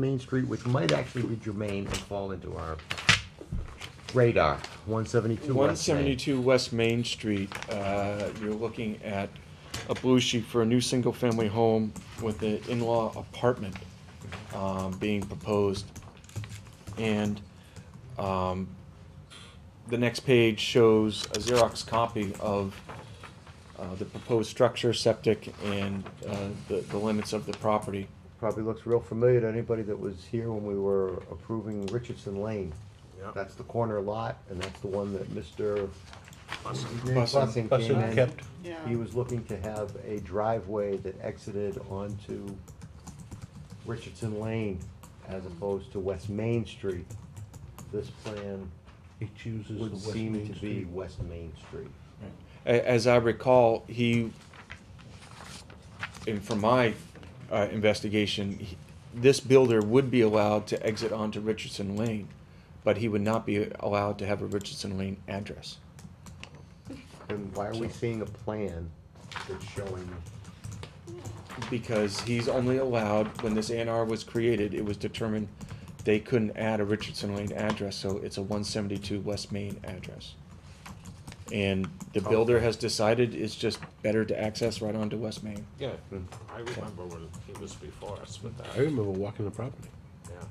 Main Street, which might actually be germane and fall into our radar, one seventy-two One West Main. seventy-two West Main Street, uh, you're looking at a blue sheet for a new single-family home with an in-law apartment, um, being proposed. And, um, the next page shows a Xerox copy of, uh, the proposed structure, septic, and, uh, the, the limits of the property. Probably looks real familiar to anybody that was here when we were approving Richardson Lane. That's the corner lot, and that's the one that Mr. Bussing came Bussing in. kept. Yeah. He was looking to have a driveway that exited onto Richardson Lane as opposed to West Main Street. This plan He chooses the would West seem Main to be Street. West Main Street. A- As I recall, he, and from my uh, investigation, he- this builder would be allowed to exit onto Richardson Lane, but he would not be allowed to have a Richardson Lane address. And why are we seeing a plan that's showing, Because he's only allowed, when this ANR was created, it was determined they couldn't add a Richardson Lane address, so it's a one seventy-two West Main address. And the builder has decided it's just better to access right onto West Main. Yeah, I remember when he was before us with I that, remember walking the property. yeah.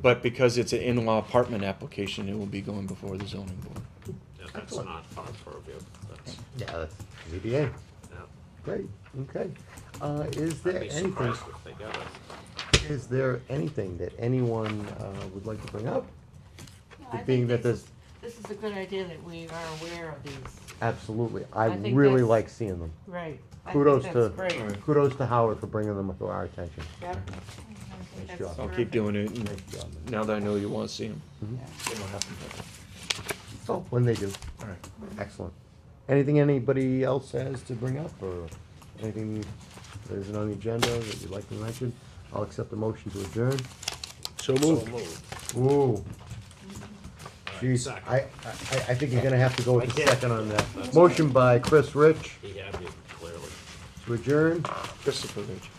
But because it's an in-law apartment application, it will be going before the zoning board. Yeah, that's Excellent. not our purview, that's, yeah, that's ZBA, yeah. E great, okay. Uh, is I'd there be anything, surprised if they got it. is there anything that anyone, uh, would like to bring up? I think Being that this this, is- This is a good idea that we are aware of these, absolutely, I I think really that's- like seeing them. right. I think Kudos that's to, Great, kudos to Howard for bringing them to our attention. yep. Nice job. I'll keep doing it, and Nice job. now that I know you wanna see them. Oh, when they do. Alright. Excellent. Anything anybody else has to bring up, or anything that isn't on the agenda that you'd like to mention? I'll accept the motion to adjourn. So So moved. moved. Ooh. Jeez, second. I, I, I think you're gonna have to go with the I can't. second on that. Motion by Chris Rich He had me clearly. to adjourn. Christopher Ridge.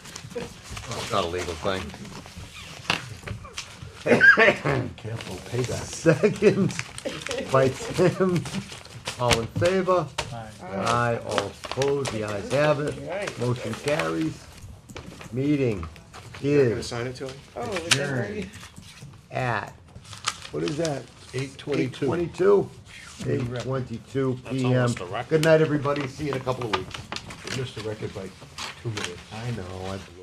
Not a legal thing. Careful, payback. Second by Tim. All in favor? Aye, all opposed, the ayes have it. Motion carries. Meeting is sign it to him? Oh, adjourned at What is that? Eight eight twenty-two. twenty-two. Eight twenty-two That's PM. almost a record. Good night, everybody. See you in a couple of weeks. Missed the record by two minutes. I know, I